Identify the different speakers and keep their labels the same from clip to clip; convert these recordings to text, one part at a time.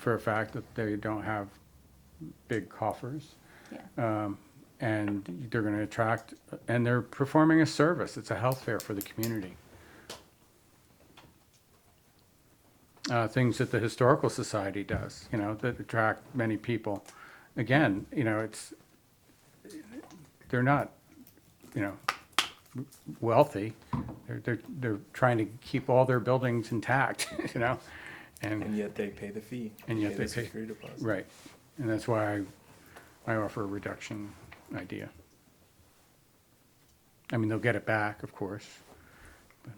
Speaker 1: for a fact that they don't have big coffers.
Speaker 2: Yeah.
Speaker 1: Um, and they're going to attract, and they're performing a service. It's a health fair for the community. Uh, things that the historical society does, you know, that attract many people. Again, you know, it's they're not, you know, wealthy. They're they're they're trying to keep all their buildings intact, you know, and
Speaker 3: And yet they pay the fee.
Speaker 1: And yet they
Speaker 3: the
Speaker 1: pay-
Speaker 3: Security deposit.
Speaker 1: Right, and that's why I, I offer a reduction idea. I mean, they'll get it back, of course. but-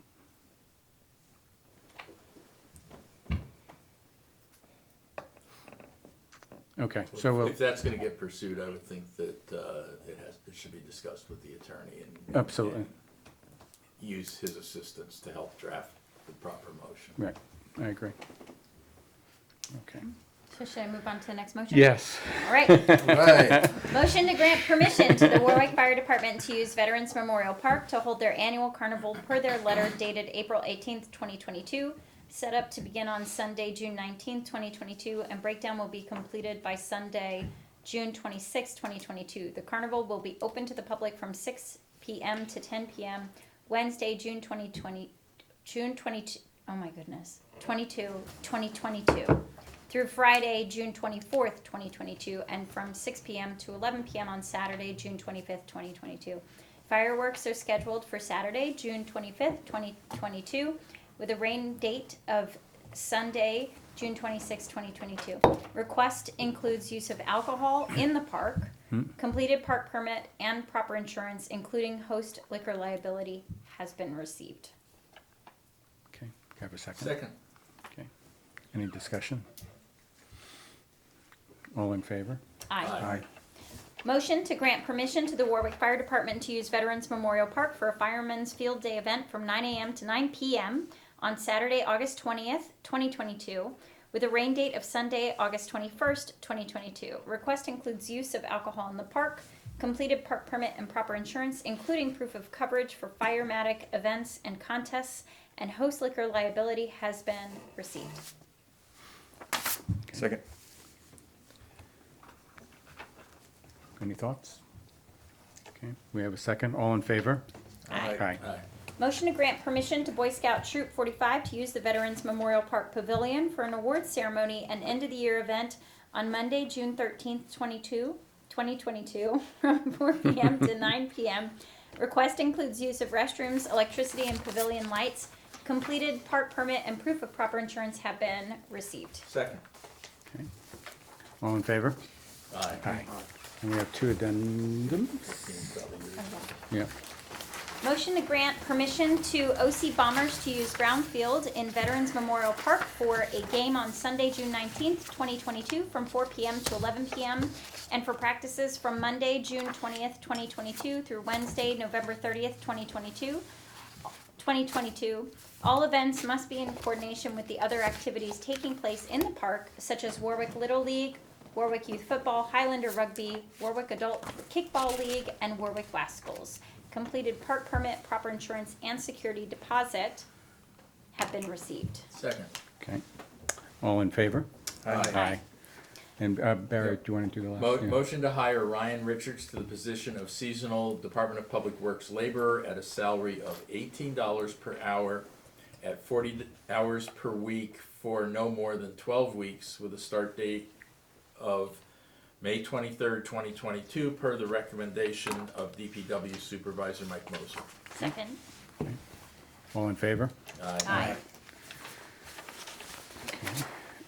Speaker 1: Okay, so we'll,
Speaker 4: If that's gonna get pursued, I would think that, uh, it has, it should be discussed with the attorney and.
Speaker 1: Absolutely.
Speaker 4: and Use his assistance to help draft the proper motion.
Speaker 1: right, I agree. Okay,
Speaker 2: So should I move on to the next motion?
Speaker 1: yes,
Speaker 2: All right.
Speaker 4: Right.
Speaker 2: Motion to grant permission to the Warwick Fire Department to use Veterans Memorial Park to hold their annual carnival per their letter dated April eighteenth, twenty twenty-two, set up to begin on Sunday, June nineteenth, twenty twenty-two, and breakdown will be completed by Sunday, June twenty-sixth, twenty twenty-two. The carnival will be open to the public from six PM to ten PM, Wednesday, June twenty twenty, June twenty, oh my goodness, 22, 2022 through Friday, June 24th, 2022, and from 6 p.m. to 11 p.m. on Saturday, June 25th, 2022. Fireworks are scheduled for Saturday, June 25th, 2022, with a rain date of Sunday, June 26th, 2022. Request includes use of alcohol in the park, completed park permit, and proper insurance, including host liquor liability, has been received.
Speaker 1: okay, have a second,
Speaker 4: Second,
Speaker 1: okay, any discussion? All in favor?
Speaker 4: Aye.
Speaker 2: Motion to grant permission to the Warwick Fire Department to use Veterans Memorial Park for a Fireman's Field Day event from 9 a.m. to 9 p.m. on Saturday, August 20th, 2022, with a rain date of Sunday, August 21st, 2022. Request includes use of alcohol in the park, completed park permit and proper insurance, including proof of coverage for firematic events and contests, and host liquor liability has been received.
Speaker 3: Second.
Speaker 1: Any thoughts? Okay, we have a second, all in favor?
Speaker 2: Aye.
Speaker 1: Aye.
Speaker 4: aye,
Speaker 2: Motion to grant permission to Boy Scout Troop 45 to use the Veterans Memorial Park Pavilion for an awards ceremony and end-of-the-year event on Monday, June 13th, 22, 2022, from 4 p.m. to 9 p.m. Request includes use of restrooms, electricity, and pavilion lights. Completed park permit and proof of proper insurance have been received.
Speaker 4: second,
Speaker 1: Okay. All in favor?
Speaker 4: aye.
Speaker 1: And we have two addendums? Yeah,
Speaker 2: Motion to grant permission to OC Bombers to use Brown Field in Veterans Memorial Park for a game on Sunday, June nineteenth, twenty twenty-two, from four PM to eleven PM, and for practices from Monday, June twentieth, twenty twenty-two, through Wednesday, November thirtieth, twenty twenty-two. 2022, all events must be in coordination with the other activities taking place in the park, such as Warwick Little League, Warwick Youth Football, Highlander Rugby, Warwick Adult Kickball League, and Warwick Rascals. Completed park permit, proper insurance, and security deposit have been received.
Speaker 4: Second,
Speaker 1: okay. All in favor?
Speaker 4: aye.
Speaker 1: And uh, Barry, do you want to do the
Speaker 4: Mo-
Speaker 1: last? Yeah.
Speaker 4: Motion to hire Ryan Richards to the position of seasonal Department of Public Works laborer at a salary of eighteen dollars per hour at forty d- hours per week for no more than twelve weeks with a start date of May twenty-third, twenty twenty-two, per the recommendation of DPW Supervisor Mike Moser.
Speaker 2: Second.
Speaker 1: All in favor?
Speaker 2: Aye.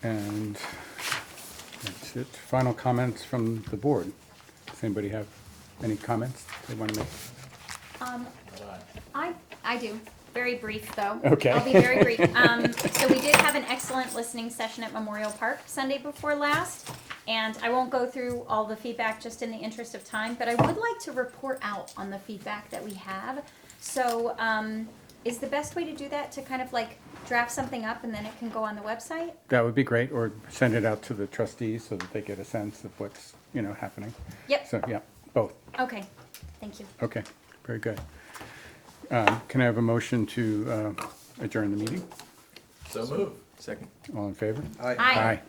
Speaker 1: And that's it. Final comments from the board. Does anybody have any comments they want to make?
Speaker 2: Um,
Speaker 4: Aye.
Speaker 2: I, I do. Very brief, though.
Speaker 1: Okay.
Speaker 2: I'll be very brief. Um, so we did have an excellent listening session at Memorial Park Sunday before last. And I won't go through all the feedback just in the interest of time, but I would like to report out on the feedback that we have. So, um, is the best way to do that to kind of like draft something up and then it can go on the website?
Speaker 1: That would be great, or send it out to the trustees so that they get a sense of what's, you know, happening.
Speaker 2: Yep,
Speaker 1: So, yeah, both.
Speaker 2: okay, thank you.
Speaker 1: Okay, very good. Um, Can I have a motion to uh, adjourn the meeting?
Speaker 4: So move.
Speaker 3: Second.
Speaker 1: All in favor?
Speaker 2: Aye.